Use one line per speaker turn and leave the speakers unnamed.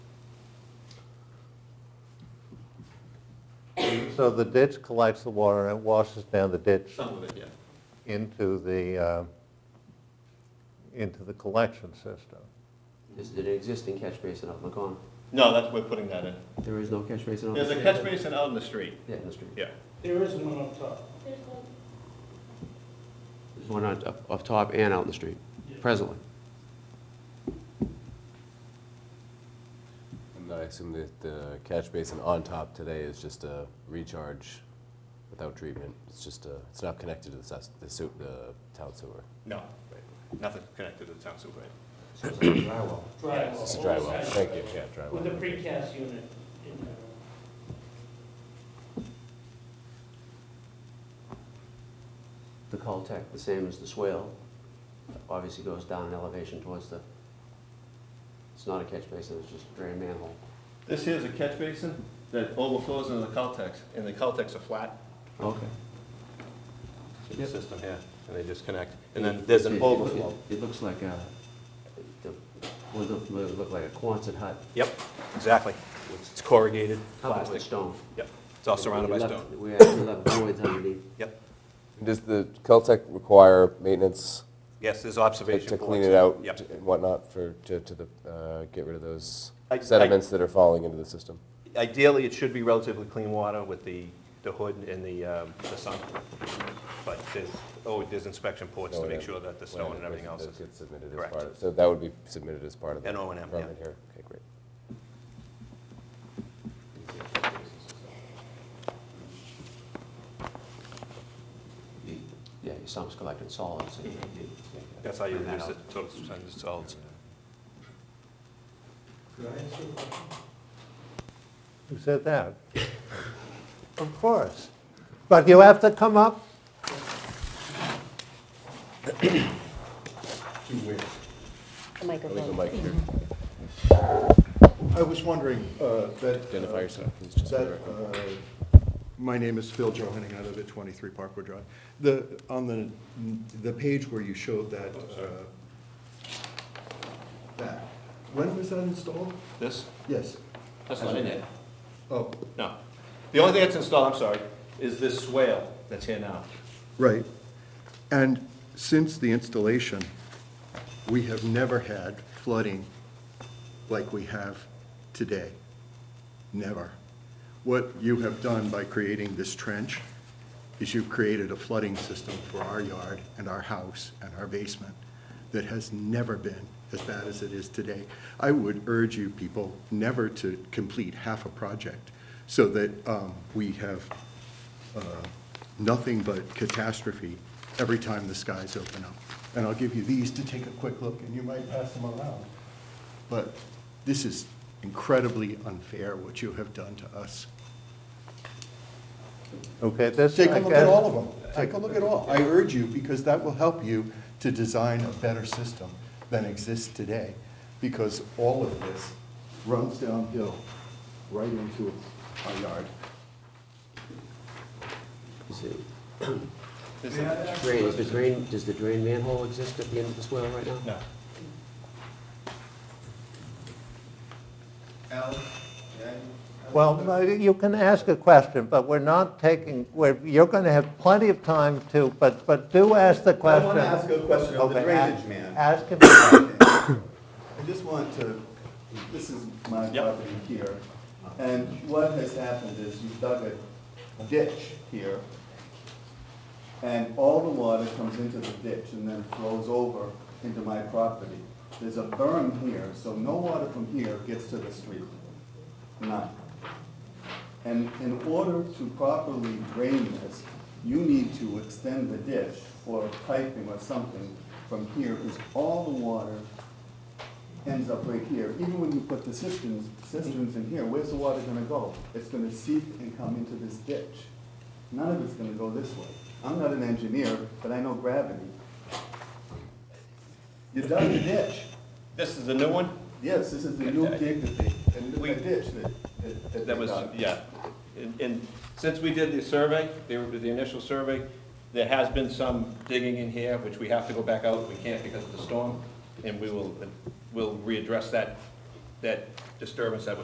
So the ditch collects the water and it washes down the ditch
Some of it, yeah.
into the, uh, into the collection system.
This is an existing catch basin out in the corner.
No, that's, we're putting that in.
There is no catch basin on the
There's
street.
a catch basin out in the street.
Yeah, in the street.
Yeah.
There is one up top.
There's one on, up, up top and out in the street, presently.
And I assume that the catch basin on top today is just a recharge without treatment. It's just a, it's not connected to the, sus- the, su- the town sewer.
No, nothing connected to the town sewer.
So it's like a drywall.
Drywall.
It's a dry well.
oversized
Thank you.
drywall,
Yeah, dry well.
With a precast unit in there.
The cul-de-sac, the same as the swale, obviously goes down in elevation towards the, it's not a catch basin, it's just a drain manhole.
This here's a catch basin that overflows into the Caltex, and the Caltex are flat.
Okay.
to the
Yep.
System here, and they just connect, and then there's an overflow.
It looks like a, the, what it look- what it look like, a Quonset hut.
Yep, exactly. It's corrugated
covered with
plastic.
stone.
Yep, it's all surrounded by
We left-
stone.
We actually left voids underneath.
Yep,
Does the Caltech require maintenance
yes, there's
to,
observation.
to clean
boards.
it out
Yep.
and whatnot for to, to the uh, get rid of those
I- I-
sediments that are falling into the system?
Ideally, it should be relatively clean water with the, the hood and the, um, the sun. But there's, oh, there's inspection ports to
No,
make
yeah.
sure that the stone and everything else
That
is.
gets submitted as
Correct.
part of- So that would be submitted as part of the
And O and M, yeah.
permit here. Okay, great.
You- Yeah, your sump's collecting solids. and you- you-
That's how you
Clean that
reduce
out.
it, so it's, it's solids.
Could I ask you a question?
Who said that? Of course. But you have to come up,
The
I'll leave the
microphone.
mic here.
I was wondering, uh, that...
Identify
uh,
yourself, please, just for
that,
the record.
uh, My name is Phil Johanning, I live at 23 Parkwood Drive. The, on the, the page where you showed that,
Oh,
uh, that, when was that installed?
This?
Yes,
That's not in it.
oh,
No. The only thing that's installed, I'm sorry, is this swale that's here now.
right. And since the installation, we have never had flooding like we have today. Never. What you have done by creating this trench is you've created a flooding system for our yard and our house and our basement that has never been as bad as it is today. I would urge you people never to complete half a project so that um, we have uh, nothing but catastrophe every time the skies open up. And I'll give you these to take a quick look, and you might pass them around. But this is incredibly unfair, what you have done to us.
okay, this,
Take
I
a look at all
guess,
of them. Take a look at all. I urge you, because that will help you to design a better system than exists today, because all of this runs downhill right into our yard.
Is it- Drain, is the drain, does the drain manhole exist at the end of the swale right now?
No.
well, no, you can ask a question, but we're not taking, we're, you're going to have plenty of time to, but, but do ask the
I
question.
want to ask a question of the
Okay, a-
drainage man.
Ask him.
I just want to, this is my
Yep.
property here, and what has happened is you've dug a ditch here, and all the water comes into the ditch and then flows over into my property. There's a berm here, so no water from here gets to the street. None. And in order to properly drain this, you need to extend the ditch or piping or something from here, because all the water ends up right here. Even when you put the cisterns, cisterns in here, where's the water gonna go? It's gonna seep and come into this ditch. None of it's gonna go this way. I'm not an engineer, but I know gravity. You dug a ditch.
This is the new one?
Yes, this is the new dig that they, and
We-
a ditch that- that, that they
That was,
dug.
yeah. And- And since we did the survey, the the initial survey, there has been some digging in here, which we have to go back out. We can't because of the storm. And we will, we'll readdress that, that disturbance that was